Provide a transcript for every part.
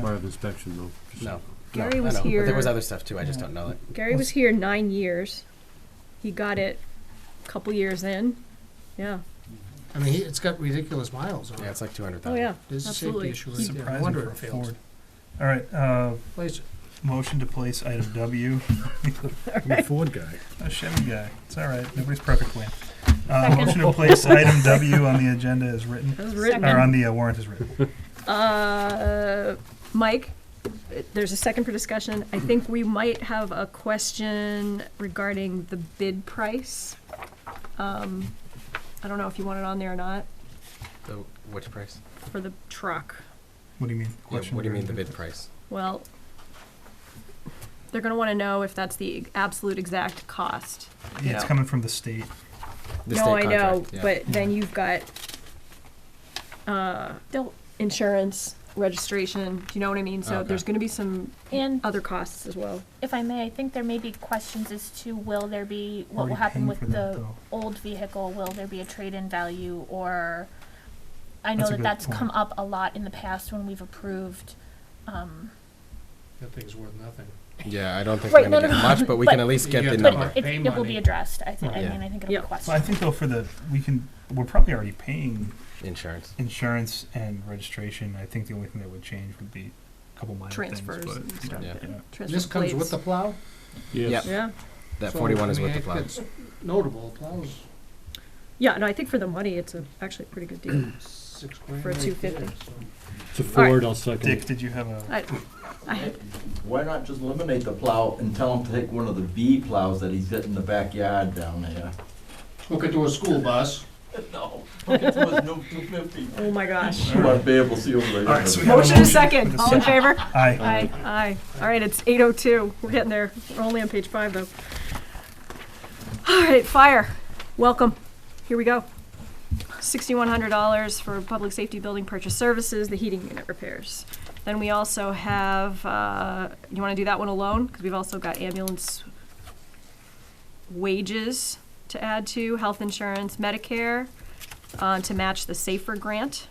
Part of inspection though. just- No. Gary no, I was know, But here- there was other stuff too. I just don't know it. Gary was here nine years. He got it a couple years in. Yeah. I mean, he- it's got ridiculous miles on Yeah, it. it's like two hundred Oh, thousand. yeah. There's a Absolutely. safety issue right there. No Surprising wonder for it a fails. Ford. All right, uh, Place it. motion to place item W. I'm a Ford guy. A Chevy guy. It's all right. Nobody's perfect, Wayne. Uh, motion to place item W on the agenda as written, That was or written. on the uh, warrant as written. Uh, Mike, there's a second for discussion. I think we might have a question regarding the bid price. Um, I don't know if you want it on there or not The, which price? for the truck. What do you mean? Yeah, Question what do you or- mean the bid price? Well, they're going to want to know if that's the absolute exact cost. Yeah, it's No. coming from the state. The no, state I know, contract, yeah. but then you've got uh, insurance, registration. Do you know what I mean? So Okay. there's going to be some And other costs as well. if I may, I think there may be questions as to will there be, Are what we will happen paying with for that, the though? old vehicle? Will there be a trade-in value or, I That's know a that good that's come point. up a lot in the past when we've approved, um, That thing's worth nothing. Yeah, I don't think we're Right, gonna no, no, get no, much, but we but- can at least get the You have to number. but Right. it, Pay it will money. be addressed, I think, I Yeah. mean, I think it'll be Yeah. Well, I questioned. think though for the we can we're probably already paying Insurance. insurance and registration. I think the only thing that would change would be a couple minor Transfers things, and but, stuff. Yeah. and transfer This comes with plates. the plow? Yes. yeah, That So, forty-one I is mean, with the it plow. gets Notable, plow's yeah. No, I think for the money, it's a, actually a pretty good deal. six grand. For a right 250. there, so. It's a Ford, I'll second Dick, it. did you have a? I, I, Why not just eliminate the plow and tell him to take one of the B plows that he's got in the backyard down there? Hook it to a school bus. No, look at those new two fifty. oh my gosh. You want to be able to see over All right, so we there. have a Motion motion is second. and a All in favor? Aye. Aye. Aye. All right, it's 8:02. We're getting there. We're only on page five though. All right, fire. Welcome. Here we go. $6,100 for public safety building purchase services, the heating unit repairs. Then we also have, uh, you want to do that one alone? Because we've also got ambulance wages to add to, health insurance, Medicare, uh, to match the SAFER grant.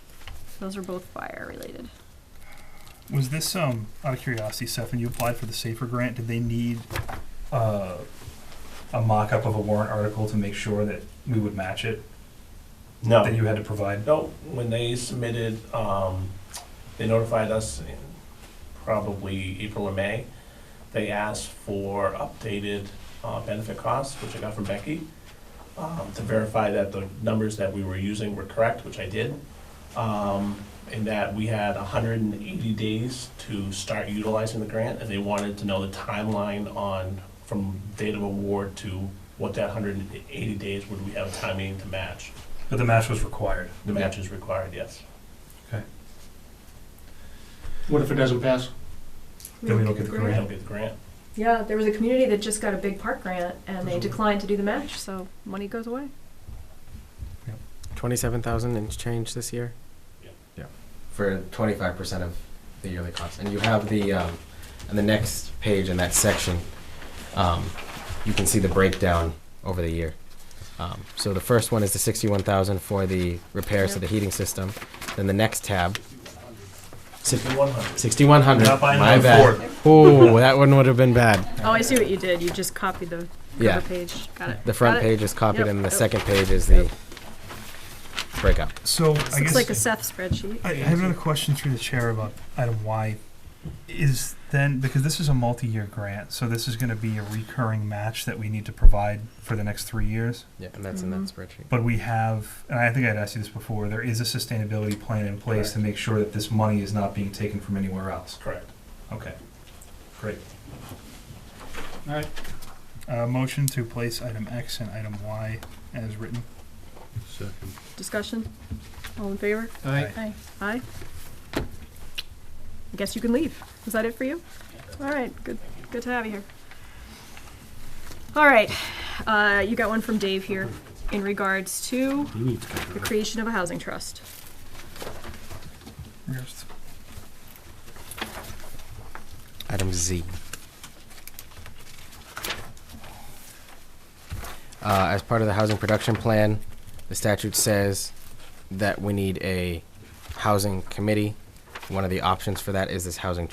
Those are both fire related. Was this um out of curiosity, Seth? When you applied for the safer grant, did they need uh, a mock-up of a warrant article to make sure that we would match it that No, you had to provide? no, when they submitted, um, they notified us in probably April or May. They asked for updated, uh, benefit costs, which I got from Becky, um, to verify that the numbers that we were using were correct, which I did. Um, and that we had hundred and eighty days to start utilizing the grant, and they wanted to know the timeline on, from date of award to what that hundred and eighty days would we have a timing to match. But the match was required. The match is required, yes. What if it doesn't pass? Then we don't get the We grant. don't get the grant. Yeah, there was a community that just got a big park grant and Mm-hmm. they declined to do the match, so money goes away. Twenty-seven thousand and change this year? Yeah. Yeah. For twenty-five percent of the yearly cost. And you have the, um, on the next page in that section, um, you can see the breakdown over the year. Um, so the first one is the sixty-one thousand for the repairs to the heating system. Then the next tab, Sixty-one hundred. sixty-one hundred, Not buying my another bad. Ooh, that one would have been bad. Oh, I see what you did. You just copied the Yeah. cover page. Got it. The front Got it. page is copied Uh, Yep. and the Yep. second page is the breakup. So I It's guess like a Seth spreadsheet. I, I have another question through the chair about item Y. Is then because this is a multi-year grant, so this is going to be a recurring match that we need to provide for the next three years. Yeah, and that's in that Mhm. spreadsheet. But we have, and I think I'd asked you this before, there is a sustainability plan in place to make sure that this money is not being taken from anywhere else. Correct. Okay, great. All right. Uh, motion to place item X and item Y as written. Second. Discussion? All in favor? Aye. Aye. Aye. I guess you can leave. Is that it for you? All right, good, good to have you here. All right, uh, you got one from Dave here in regards to You need to get the that. creation of a housing trust. Where's- Item Z. Uh, as part of the housing production plan, the statute says that we need a housing committee One of the options for that is this housing